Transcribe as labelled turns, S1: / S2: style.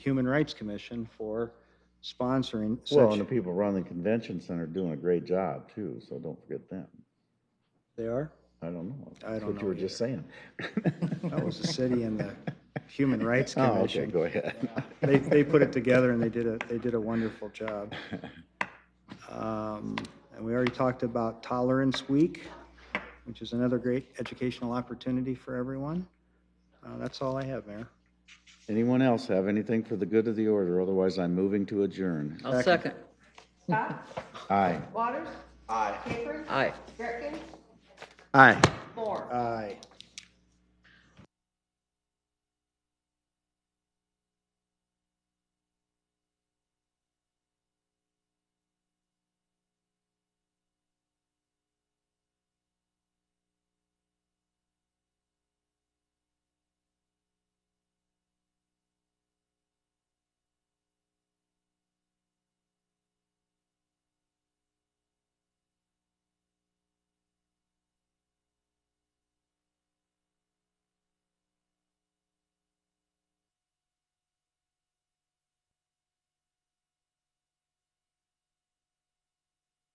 S1: Human Rights Commission for sponsoring
S2: Well, and the
S1: such.
S2: people running the convention center are doing a great job too, so don't forget them.
S1: They are?
S2: I don't know.
S1: I
S2: That's
S1: don't
S2: What you were
S1: know
S2: just saying.
S1: That was the city and the Human Rights
S2: Oh, okay,
S1: Commission.
S2: go ahead.
S1: They, they put it together and they did a, they did a wonderful job. Um, And we already talked about Tolerance Week, which is another great educational opportunity for everyone. Uh, That's all I have, Mayor.
S2: Anyone else have anything for the good of the order? Otherwise, I'm moving to adjourn.
S3: I'll second.
S4: Scott?
S2: Aye.
S4: Waters? Aye. Capron?
S3: Aye.
S4: Gretkin?
S2: Aye.
S4: Moore?
S1: Aye.